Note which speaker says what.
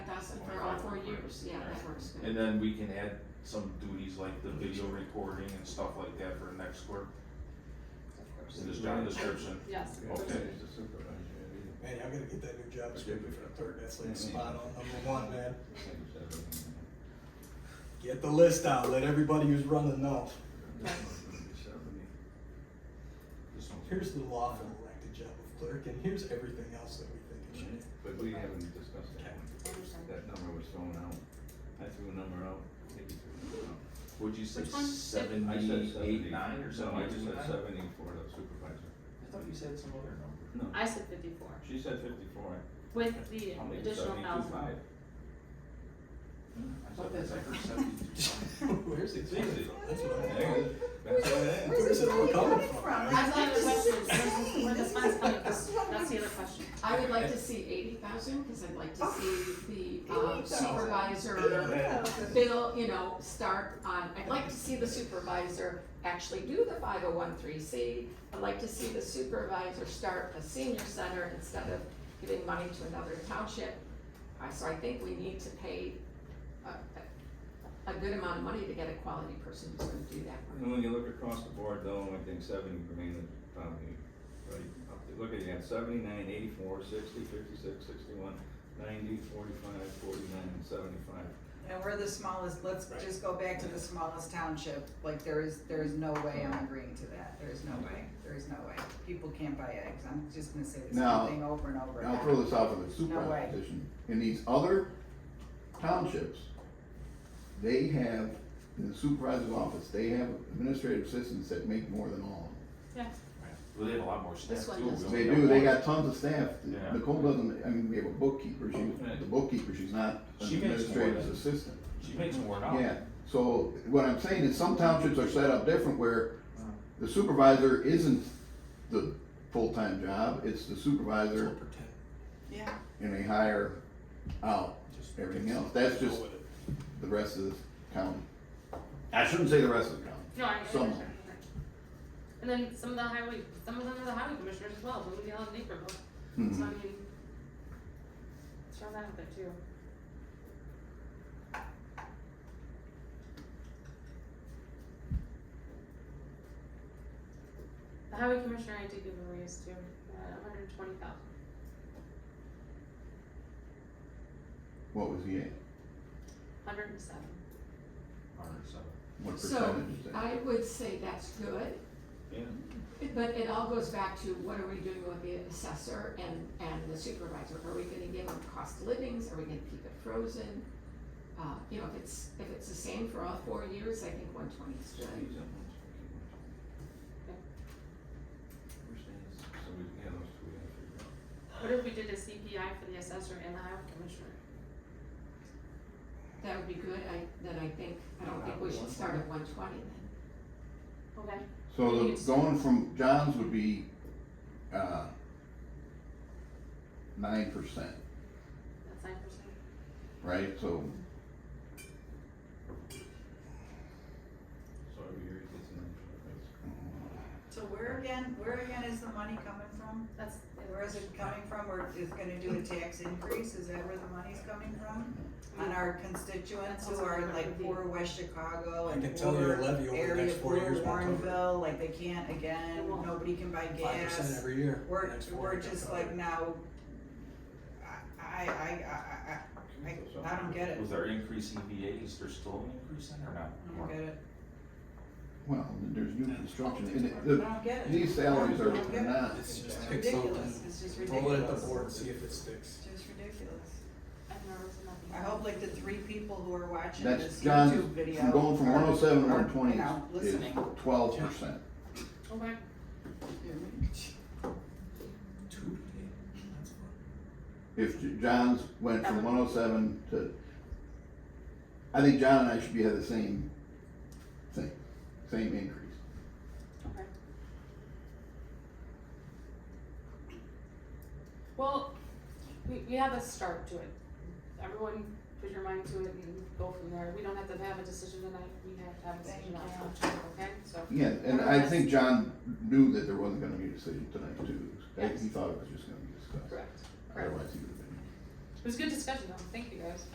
Speaker 1: years, yeah, that works
Speaker 2: And
Speaker 1: good.
Speaker 2: then we can add some duties like the video recording and stuff like that for next clerk, in this job description.
Speaker 1: Yes.
Speaker 2: Okay.
Speaker 3: Man, y'all gotta get that new job description for the clerk, that's like spot on, number one, man. Get the list out, let everybody who's running know.
Speaker 2: This one's-
Speaker 3: Here's the lawful elected job of clerk, and here's everything else that we think it should be.
Speaker 4: But we haven't discussed that one, that number was thrown out, I threw a number out, Nikki threw a number out.
Speaker 2: Would you say
Speaker 1: Which one?
Speaker 4: I said seventy.
Speaker 2: seventy-eight, nine or
Speaker 4: No, I just
Speaker 2: seventy-two,
Speaker 4: said
Speaker 2: nine?
Speaker 4: seventy for the supervisor,
Speaker 2: I thought you said some other number.
Speaker 4: no,
Speaker 1: I said fifty-four,
Speaker 4: she said fifty-four,
Speaker 1: with the
Speaker 4: I'll make it
Speaker 1: additional
Speaker 4: seventy-two
Speaker 1: thousand.
Speaker 4: five.
Speaker 2: I thought that's, I heard seventy-two.
Speaker 3: Where's it
Speaker 4: It's easy.
Speaker 3: That's what I'm
Speaker 4: There
Speaker 3: saying.
Speaker 4: you go. That's what it is.
Speaker 3: Where's it all coming from?
Speaker 1: I have other
Speaker 5: This is
Speaker 1: questions,
Speaker 5: insane.
Speaker 1: where the
Speaker 5: This
Speaker 1: funds
Speaker 5: is-
Speaker 1: coming
Speaker 5: this is
Speaker 1: from,
Speaker 5: what
Speaker 1: that's the
Speaker 5: we-
Speaker 1: other question.
Speaker 5: I
Speaker 1: I
Speaker 5: would like to see eighty thousand, cause I'd like to see the um,
Speaker 3: 80,000.
Speaker 5: supervisor bill, you know, start on, I'd like to see the supervisor actually do the five oh one three C. I'd like to see the supervisor start a senior center instead of giving money to another township. Uh, so I think we need to pay a, a, a good amount of money to get a quality person who's gonna do that work.
Speaker 4: And when you look across the board though, I think seventy remain the probably, right, up there. look at, you got seventy-nine, eighty-four, sixty, fifty-six, sixty-one, ninety, forty-five, forty-nine, and seventy-five.
Speaker 6: And we're the smallest, let's
Speaker 3: Right.
Speaker 6: just go back to the smallest township, like there is, there is no way I'm agreeing to that, there is no way, there is no way. People can't buy eggs, I'm just gonna say the
Speaker 7: Now-
Speaker 6: same thing over and over
Speaker 7: And I'll throw
Speaker 6: again.
Speaker 7: this out for the
Speaker 6: No way.
Speaker 7: supervisor position. In these other townships, they have, in the supervisor's office, they have administrative assistants that make more than all
Speaker 2: Well, they have a lot more staff
Speaker 5: This one
Speaker 2: too. We
Speaker 5: doesn't.
Speaker 7: of them.
Speaker 2: only
Speaker 7: They
Speaker 2: have
Speaker 7: do, they
Speaker 2: one.
Speaker 7: got tons of staff.
Speaker 2: Yeah.
Speaker 7: Nicole doesn't, I mean, we have a bookkeeper, she,
Speaker 4: Okay.
Speaker 7: the bookkeeper, she's not an
Speaker 2: She makes more
Speaker 7: administrative
Speaker 2: than-
Speaker 7: assistant.
Speaker 2: She makes more now.
Speaker 7: Yeah, so what I'm saying is some townships are set up different where the supervisor isn't the full-time job, it's the supervisor
Speaker 3: Pretend.
Speaker 6: Yeah.
Speaker 7: and they hire out
Speaker 3: Just
Speaker 7: everything
Speaker 3: fix it.
Speaker 7: else. That's
Speaker 3: Go
Speaker 7: just
Speaker 3: with it.
Speaker 7: the rest of the county. I shouldn't say the rest of the county.
Speaker 1: No, I. I-
Speaker 7: Some.
Speaker 1: And then some of the highway, some of them are the highway commissioners as well, Bloomingdale and Naperville, so I
Speaker 7: Mhm.
Speaker 1: mean, throw that out there too. The highway commissioner, I did give a raise to, uh, hundred and twenty thousand.
Speaker 7: What was he at?
Speaker 1: Hundred and seven.
Speaker 2: Hundred seven.
Speaker 7: What
Speaker 5: So
Speaker 7: percentage is that?
Speaker 5: I would say that's good.
Speaker 4: Yeah.
Speaker 5: But it all goes back to what are we doing with the assessor and, and the supervisor? Are we gonna give them cost of livings? Are we gonna keep it frozen? Uh, you know, if it's, if it's the same for all four years, I think one twenty is
Speaker 4: Jeez,
Speaker 5: good.
Speaker 4: I'm almost fucking watching. We're
Speaker 1: Okay.
Speaker 4: saying it's- So we, yeah, those two we have to figure out.
Speaker 1: What if we did a CPI for the assessor and the highway commissioner?
Speaker 5: That would be good. I, then I think, I don't think we should start at one twenty then.
Speaker 1: Okay.
Speaker 7: So the, going from John's would be, uh, nine percent,
Speaker 1: That's nine percent.
Speaker 7: right? So,
Speaker 4: So every year it gets an extra raise.
Speaker 6: So where again, where again is the money coming from?
Speaker 1: That's.
Speaker 6: Where is it coming from, or is gonna do a tax increase, is that where the money's coming from? On our constituents who are like poor West Chicago
Speaker 3: I
Speaker 6: and
Speaker 3: can tell you
Speaker 6: poor
Speaker 3: the levy over the
Speaker 6: area,
Speaker 3: next four
Speaker 6: poor
Speaker 3: years won't cover it.
Speaker 6: Warrenville, like they can't again,
Speaker 1: It won't.
Speaker 6: nobody can buy gas.
Speaker 3: Five percent every year.
Speaker 6: We're,
Speaker 3: Next four
Speaker 6: we're
Speaker 3: years,
Speaker 6: just
Speaker 3: I'll cover
Speaker 6: like
Speaker 3: it.
Speaker 6: now, I, I, I, I, I, I don't get it,
Speaker 2: With our increase in VAs, there's still an increase in or not?
Speaker 6: I don't get it,
Speaker 7: well, there's new construction and it,
Speaker 6: I
Speaker 7: the,
Speaker 6: don't get it,
Speaker 7: these salaries are not,
Speaker 3: It's just
Speaker 6: It's
Speaker 3: pick something,
Speaker 6: ridiculous, it's just
Speaker 3: roll it
Speaker 6: ridiculous,
Speaker 3: at the
Speaker 6: it's
Speaker 3: board, see if it sticks.
Speaker 6: just ridiculous.
Speaker 1: I've never seen nothing.
Speaker 6: I hope like the three people who are watching
Speaker 7: that's
Speaker 6: this
Speaker 7: John's,
Speaker 6: YouTube video.
Speaker 7: from going from
Speaker 6: are-
Speaker 7: one oh seven to
Speaker 6: are,
Speaker 7: one
Speaker 6: you
Speaker 7: twenty
Speaker 6: know,
Speaker 7: is
Speaker 6: Listening.
Speaker 7: twelve percent.
Speaker 1: Okay.
Speaker 3: Two today, that's fun.
Speaker 7: If J- John's went from one oh seven to, I think John and I should be at the same thing, same increase.
Speaker 1: Okay. Well, we, we have a start to it. Everyone put your mind to it and go from there. We don't have to have a decision tonight. We have to have a decision on how to, okay? So,
Speaker 7: Yeah, and I think John knew that there wasn't gonna be a decision tonight too. I- He
Speaker 1: Yes.
Speaker 7: thought it was just gonna be discussed.
Speaker 1: correct. Correct.
Speaker 7: Otherwise he would have been.
Speaker 1: It was a good discussion though. Thank you guys.